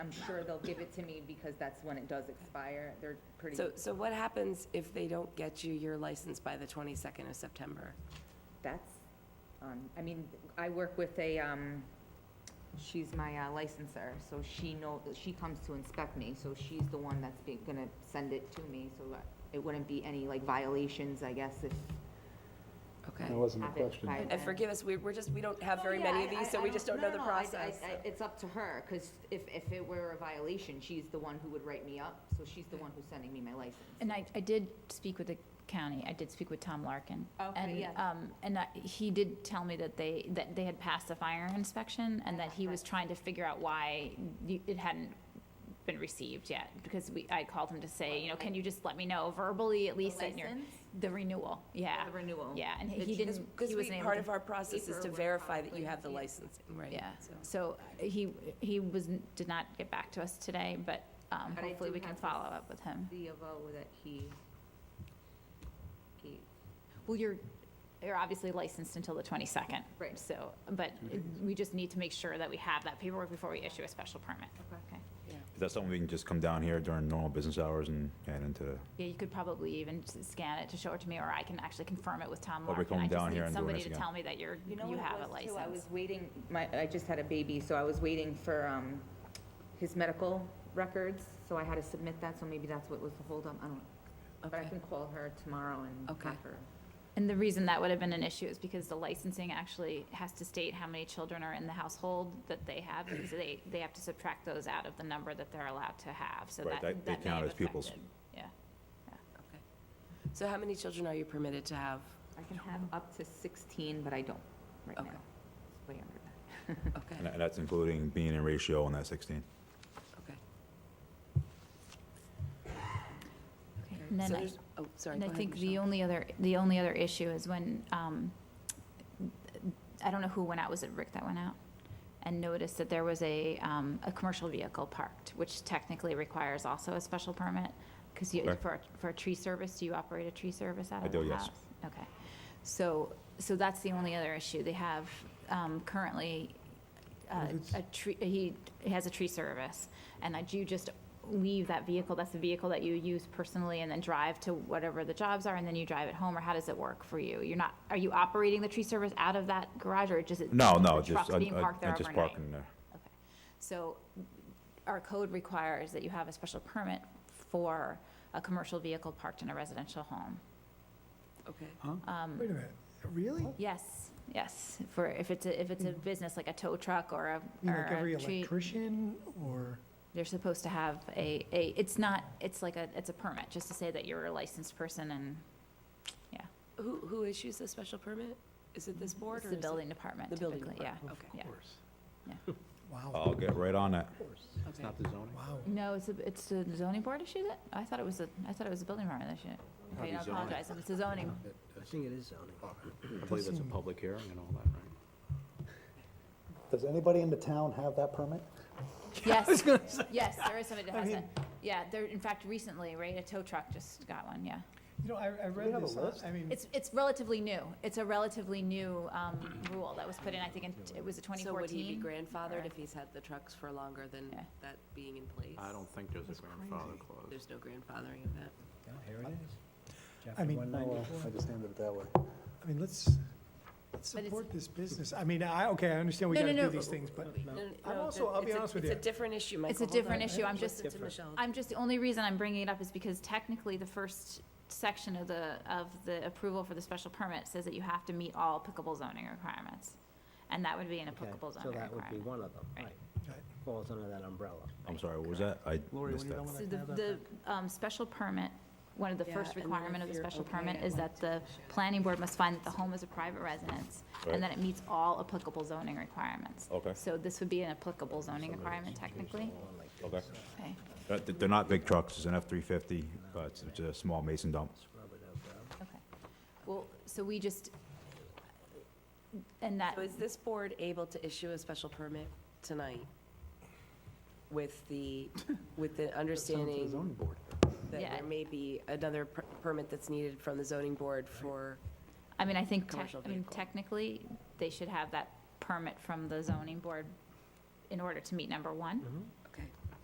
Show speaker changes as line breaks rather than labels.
I'm sure they'll give it to me because that's when it does expire. They're pretty,
So, so what happens if they don't get you your license by the 22nd of September?
that's, um, I mean, I work with a, um, she's my uh, licenser, so she know, she comes to inspect me, so she's the one that's be, gonna send it to me, so that it wouldn't be any like violations, I guess, if.
Okay. Oh,
That wasn't the
Have it
question.
by
And forgive us, we- we're just, we don't have
Oh,
very many of these, so we just don't know the process.
It's up to her, because if, if it were a violation, she's the one who would write me up, so she's the one who's sending me my license.
And I, I did speak with the county, I did speak with Tom Larkin.
Okay, yeah.
And, um, and I- he did tell me that they, that they had passed the fire inspection and that he was trying to figure out why you- it hadn't been received yet, because we, I called him to say, you know, can you just let me know verbally at least that you're,
license?
the renewal, yeah.
The renewal.
Yeah, and he
It's-
he
it's-
didn't,
Because
he
we,
wasn't able
part
to-
of our process is to
Paperwork,
verify that you
probably,
have the
yeah.
licensing, right?
Yeah,
so.
so he, he was, did not get back to us today, but um,
But I
hopefully
do
we can
have this-
follow up with him.
The avo that he gave.
Well, you're, you're obviously licensed until the 22nd.
Right.
So, but we just need to make sure that we have that paperwork before we issue a special permit.
Okay.
Is that something we can just come down here during normal business hours and add into the,
Yeah, you could probably even s- scan it to show it to me, or I can actually confirm it with Tom
Or we
Larkin.
come down here
I just need
and doing
somebody
this
to
again.
tell me that you're,
know what
you
it
have a
was, too? I was
license.
waiting, my, I just had a baby, so I was waiting for, um, his medical records, so I had to submit that, so maybe that's what was the holdup, I don't know. But I
Okay.
can call her tomorrow and
Okay.
have her.
And the reason that would have been an issue is because the licensing actually has to state how many children are in the household that they have, because they, they have to subtract those out of the number that they're allowed to have, so that,
Right,
that
that- they
may
count
have
as pupils.
affected- Yeah,
Okay. So how many children are you permitted to have?
I can have up to sixteen, but I don't right now.
Okay.
It's Way under that.
and
Okay,
that- that's including being in ratio on that 16?
okay.
okay. And then
So
I-
there's- Oh, sorry,
And
go
I
ahead,
think the
Michelle.
only other, the only other issue is when, um, I don't know who went out, was it Rick that went out? And noticed that there was a, um, a commercial vehicle parked, which technically requires also a special permit. Because you,
Okay.
for, for a tree service, do you operate a tree service out
I
of the
do, yes.
house? Okay. So, so that's the only other issue. They have, um, currently, uh, a tree, he has a tree service, and that you just leave that vehicle, that's the vehicle that you use personally, and then drive to whatever the jobs are, and then you drive it home, or how does it work for you? You're not, are you operating the tree service out of that garage, or just? it-
No, no,
the
just,
trucks
I-
being parked
I-
there
I'm just
overnight?
parking there.
Okay. So our code requires that you have a special permit for a commercial vehicle parked in a residential home. Um,
Okay,
Wait a minute, really?
Yes, yes, for, if it's, a if it's a business like a tow truck or a,
You Hmm. mean
or
like every
a tree.
electrician or,
They're supposed to have a, a, it's not, it's like a, it's a permit, just to say that you're a licensed person and, yeah.
who, who issues the special permit? Is it this board
It's
or
the
is it-
building department
The building
typically, yeah.
department, okay.
Yeah.
of course? Uh,
Yeah.
Wow,
I'll get right on that.
It's
Okay.
not the zoning?
wow.
No, it's, a- it's the zoning board issued it? I thought it was the, I thought it was the building department that issued it. Okay, I apologize, if it's the zoning,
I think it is zoning. I believe it's a public hearing and all that, right?
Does anybody in the town have that permit?
yes, yes, there is somebody that
I
has it.
mean-
Yeah, there, in fact, recently, right, a tow truck just got one, yeah.
You know, I, I read
have a
this, uh,
list?
I mean,
It's, it's relatively new, it's a relatively new, um, rule that was put in, I think, in, it was twenty
So would he be
fourteen.
grandfathered
Or-
if he's had the trucks for longer than
Yeah.
that being in place?
I don't think there's a grandfather clause.
There's no grandfathering of that.
Here it is.
I mean,
Oh, well, I just handed it that way.
I mean, let's, let's
But it's-
support this business. I mean, I, okay, I understand we
No,
gotta
no,
do
no.
these things, but
No, no,
I'm
no,
also-
that-
I'll be
it's a-
honest with
It's a
you.
different issue, Michael.
a
Hold
different
on.
issue. I'm just-
Listen to Michelle.
I'm just, the only reason I'm bringing it up is because technically the first section of the, of the approval for the special permit says that you have to meet all applicable zoning requirements. And that would be an applicable zoning
So that would be
requirement.
one of them,
Right.
right, falls under that umbrella.
I'm sorry, what was that? I
Lori,
missed
when you're
that.
done with
So
that,
the,
can I have that
the, um, special permit, one of the
Yeah,
first
and then
requirement
if
of the
you're
special
okay,
permit
I'd
is
like
that the planning board must find that the home is a private residence,
Right.
and that it meets all applicable zoning requirements.
Okay.
So this would be an applicable zoning requirement technically,
Okay.
okay?
Uh, th- They're not big trucks, it's an F-350, but it's it's a small mason dump.
Okay. Well, so we just, and that,
So is this board able to issue a special permit tonight with the, with the understanding
zoning board.
that
Yeah.
there may be another per- permit that's needed from the zoning board for,
I mean, I think, tec-
commercial
I mean,
vehicle.
technically,
Mm-hmm.
they should have that permit from the zoning board in order to meet number one.